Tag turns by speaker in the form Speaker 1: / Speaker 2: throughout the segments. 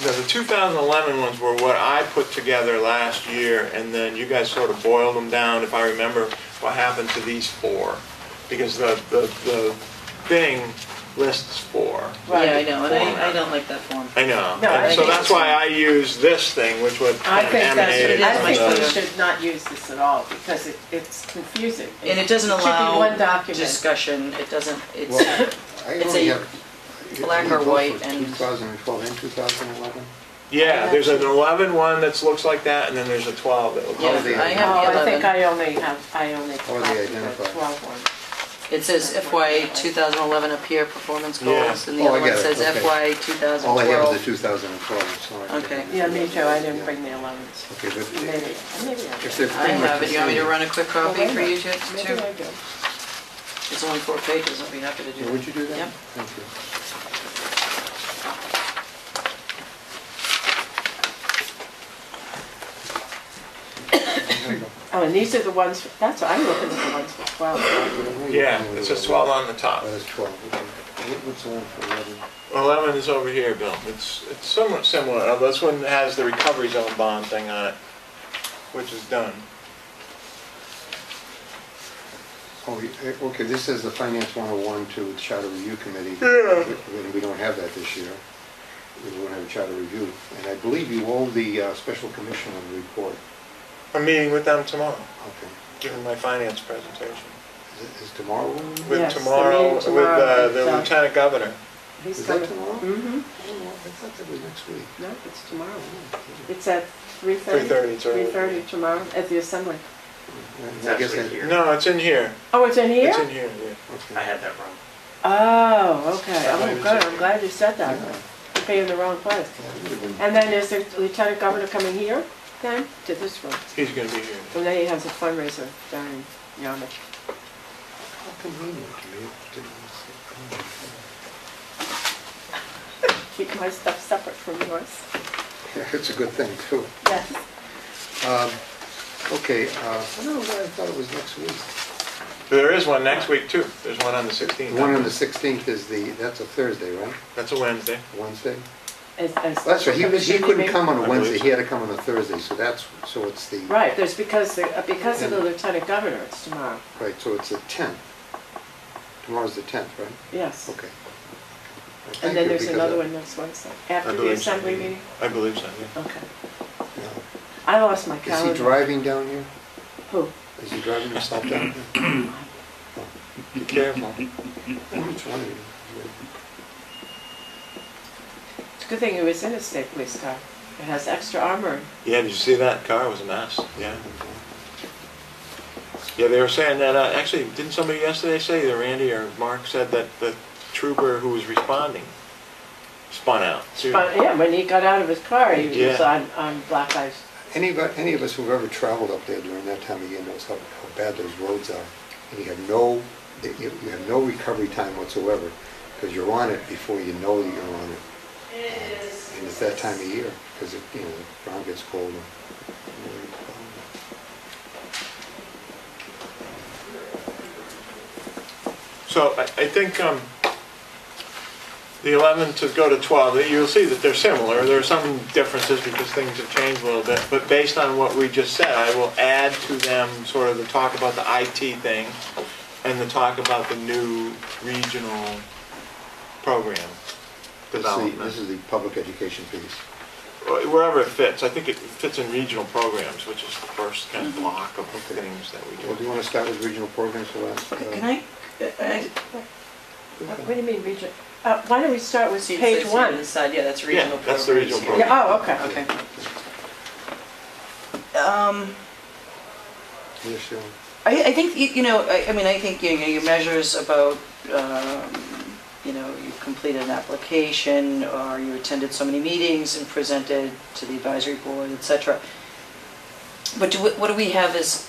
Speaker 1: Now, the 2011 ones were what I put together last year, and then you guys sort of boiled them down, if I remember, what happened to these four. Because the, the, the thing lists four.
Speaker 2: Right.
Speaker 3: Yeah, I know, and I, I don't like that form.
Speaker 1: I know.
Speaker 2: No, I
Speaker 1: And so
Speaker 2: think
Speaker 1: that's why I used this thing, which was
Speaker 2: I
Speaker 1: kind of
Speaker 2: think
Speaker 1: emanated
Speaker 2: that's,
Speaker 3: is
Speaker 2: I
Speaker 1: from
Speaker 2: think we
Speaker 1: those.
Speaker 2: should not use this at all because it, it's confusing.
Speaker 3: And it doesn't
Speaker 2: should be one
Speaker 3: allow
Speaker 2: document.
Speaker 3: discussion, it doesn't,
Speaker 4: Well,
Speaker 3: it's,
Speaker 4: I
Speaker 3: It's
Speaker 4: only
Speaker 3: a
Speaker 4: have.
Speaker 3: black or white and-
Speaker 4: 2012 and 2011.
Speaker 1: Yeah, there's an 11 one that looks like that, and then there's a 12 that looks
Speaker 3: yeah,
Speaker 1: like
Speaker 4: the-
Speaker 3: I
Speaker 2: Oh,
Speaker 3: have the
Speaker 2: I think
Speaker 3: eleven.
Speaker 2: I only have, I only
Speaker 4: All the
Speaker 2: copied the
Speaker 4: identifiers.
Speaker 2: twelve one.
Speaker 3: It says FY two thousand eleven up here, performance
Speaker 1: Yeah.
Speaker 3: goals, and the
Speaker 4: Oh, I
Speaker 3: other one
Speaker 4: get it,
Speaker 3: says
Speaker 4: okay.
Speaker 3: FY two thousand
Speaker 4: All I have is the
Speaker 3: twelve.
Speaker 4: 2012, sorry.
Speaker 3: Okay.
Speaker 2: Yeah, me too, I didn't bring the
Speaker 4: Yeah.
Speaker 2: elevens.
Speaker 4: Okay,
Speaker 2: Maybe,
Speaker 4: but
Speaker 2: maybe I
Speaker 4: if
Speaker 2: did.
Speaker 4: they're
Speaker 3: I
Speaker 4: pretty much
Speaker 3: have
Speaker 4: the
Speaker 3: it, you want me to
Speaker 4: same.
Speaker 3: run a quick
Speaker 2: Well,
Speaker 3: copy
Speaker 2: wait a
Speaker 3: for you,
Speaker 2: minute.
Speaker 3: too?
Speaker 2: Maybe I did.
Speaker 3: It's only four pages, I'll be happy to do
Speaker 4: Yeah,
Speaker 3: that.
Speaker 4: Would you do that?
Speaker 3: Yep.
Speaker 4: Thank you.
Speaker 2: Oh, and these are the ones, that's, I'm looking at the ones for twelve.
Speaker 1: that. Yeah, it says 12 on the top.
Speaker 4: Oh, that's 12, okay. What- What's the one for 11?
Speaker 1: 11 is over here, Bill. It's, it's somewhat similar, although this one has the recovery zone bond thing on it, which is done.
Speaker 4: Oh, you- eh, okay, this says the Finance 101 to Charter Review Committee.
Speaker 1: Yeah.
Speaker 4: We- We don't have that this year. We don't have a charter review. And I believe you owe the uh, special commissioner a report.
Speaker 1: I'm meeting with them tomorrow,
Speaker 4: Okay.
Speaker 1: giving my finance presentation.
Speaker 4: Is- Is tomorrow? one?
Speaker 1: With
Speaker 2: Yes, the
Speaker 1: tomorrow,
Speaker 2: meeting
Speaker 1: with
Speaker 2: tomorrow
Speaker 1: uh, the
Speaker 2: is, uh,
Speaker 1: lieutenant governor.
Speaker 2: He's
Speaker 4: Is that
Speaker 2: coming.
Speaker 4: tomorrow?
Speaker 2: Mm-hmm,
Speaker 4: Oh, I thought that was next week.
Speaker 2: no, it's tomorrow.
Speaker 4: Oh,
Speaker 2: It's at three thirty?
Speaker 1: 3:30, it's early.
Speaker 2: Three thirty tomorrow at the assembly.
Speaker 4: okay. I guess that-
Speaker 1: No, it's in here.
Speaker 2: Oh, it's in here?
Speaker 1: It's in here, yeah.
Speaker 4: okay.
Speaker 5: I had that wrong.
Speaker 2: Oh, okay.
Speaker 1: That's why
Speaker 2: Oh,
Speaker 1: we
Speaker 2: good.
Speaker 1: took
Speaker 2: I'm
Speaker 1: it.
Speaker 2: glad you said
Speaker 4: Yeah,
Speaker 2: that. You'd be in the wrong place.
Speaker 4: that would've been-
Speaker 2: And then is the lieutenant governor coming here then to this room?
Speaker 1: He's gonna be here.
Speaker 2: And then he has a fundraiser down in Yarmouth.
Speaker 4: How convenient to me. It didn't say-
Speaker 2: Keep my stuff separate from yours.
Speaker 4: Yeah, It's a good thing, too.
Speaker 2: Yes.
Speaker 4: Um, Okay, uh, I don't know why I thought it was next week.
Speaker 1: There is one next week too. There's one on the
Speaker 4: The
Speaker 1: 16th.
Speaker 4: one on the 16th is the, that's a Thursday, right?
Speaker 1: That's a Wednesday.
Speaker 4: Wednesday?
Speaker 2: As- as-
Speaker 4: Well, That's right, he was, he couldn't come on
Speaker 1: I
Speaker 4: a
Speaker 1: believe
Speaker 4: Wednesday,
Speaker 1: so.
Speaker 4: he had to come on a Thursday, so that's, so it's the,
Speaker 2: Right, there's because, the- uh, because of the lieutenant governor, it's tomorrow.
Speaker 4: right, so it's the 10th. Tomorrow's the 10th, right?
Speaker 2: Yes.
Speaker 4: Okay.
Speaker 2: And then there's another one next Wednesday,
Speaker 1: I
Speaker 2: after the
Speaker 1: believe so,
Speaker 2: assembly
Speaker 1: yeah.
Speaker 2: meeting.
Speaker 1: I believe so, yeah.
Speaker 2: Okay.
Speaker 4: one.
Speaker 2: I lost my
Speaker 4: Is he
Speaker 2: calendar.
Speaker 4: driving down here?
Speaker 2: Who?
Speaker 4: Is he driving himself down here?
Speaker 1: Be careful.
Speaker 4: Which one? are you?
Speaker 2: It's a good thing he was in a state police car. It has extra armor.
Speaker 1: Yeah, did you see that car? It was a mess. Yeah. Yeah, they were saying that, uh, actually, didn't somebody yesterday say, either Randy or Mark said that the trooper who was responding spun out. too.
Speaker 2: But, yeah, when he got out of his car, he was
Speaker 1: Yeah.
Speaker 2: on, on black ice.
Speaker 4: Any of, any of us who've ever traveled up there during that time of year knows how, how bad those roads are. And you have no, you you have no recovery time whatsoever, because you're on it before you know that you're on it. And it's that time of year, because it, you know, the ground gets colder.
Speaker 1: So I, I think, um, the 11 to go to 12, you'll see that they're similar. There are some differences because things have changed a little bit. But based on what we just said, I will add to them sort of the talk about the IT thing and the talk about the new regional program
Speaker 4: This is
Speaker 1: development.
Speaker 4: the- This is the public education piece.
Speaker 1: Wherever it fits. I think it fits in regional programs, which is the first kind
Speaker 3: Mm-hmm.
Speaker 1: of block of things that we
Speaker 4: Well, do
Speaker 1: do.
Speaker 4: you want to start with regional programs for last? uh,
Speaker 3: Can I, I,
Speaker 2: What what do you mean region? Uh, why don't we start with
Speaker 3: see, it
Speaker 2: page
Speaker 3: says here on
Speaker 2: one?
Speaker 3: the side, yeah, that's
Speaker 1: Yeah,
Speaker 3: regional.
Speaker 1: that's the regional
Speaker 3: programs here.
Speaker 1: program.
Speaker 2: Yeah, oh,
Speaker 3: Okay.
Speaker 2: okay.
Speaker 3: Um,
Speaker 4: Yes, sure.
Speaker 3: I, I think, you- you know, I, I mean, I think, you know, your measures about, um, you know, you completed an application, or you attended so many meetings and presented to the advisory board, et cetera. But do, we- what do we have as,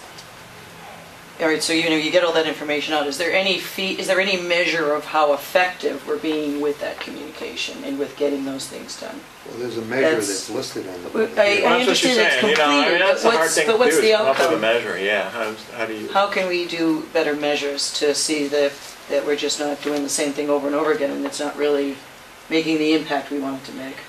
Speaker 3: all right, so, you know, you get all that information out, is there any fee, is there any measure of how effective we're being with that communication and with getting those things done?
Speaker 4: Well, there's a measure
Speaker 3: That's-
Speaker 4: that's listed on
Speaker 3: Well,
Speaker 4: the.
Speaker 3: I-
Speaker 1: Well, that's what she's
Speaker 3: understand it's
Speaker 1: saying, you know, I mean,
Speaker 3: completed,
Speaker 1: that's
Speaker 3: but
Speaker 1: a hard
Speaker 3: what's-
Speaker 1: thing
Speaker 3: but
Speaker 1: to do,
Speaker 3: what's
Speaker 1: is
Speaker 3: the
Speaker 1: come up with a
Speaker 3: outcome?
Speaker 1: measure, yeah. How how do you?
Speaker 3: How can we do better measures to see that, that we're just not doing the same thing over and over again and it's not really making the impact we want it to make?